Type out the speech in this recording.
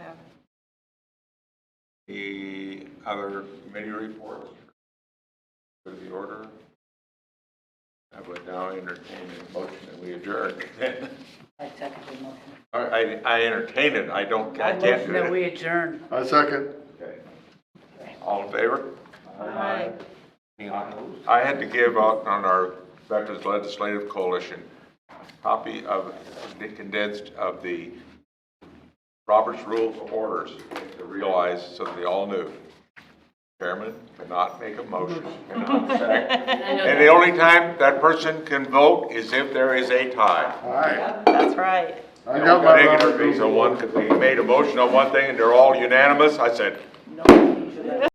The other committee reports for the order. I would now entertain a motion that we adjourn. I second the motion. All right, I, I entertain it, I don't, I I can't motion do that it. we adjourn. I second. Okay. All in favor? Aye. I had to give out on our Veterans Legislative Coalition, a copy of, the condensed of the Roberts Rules of Orders to realize, so they all knew. Chairman cannot make a motion, cannot second. And the only time that person can vote is if there is a tie. Aye. That's right. I got my Robert So Rules. one, could be made a motion on one thing and they're all unanimous, I said, No, you should have-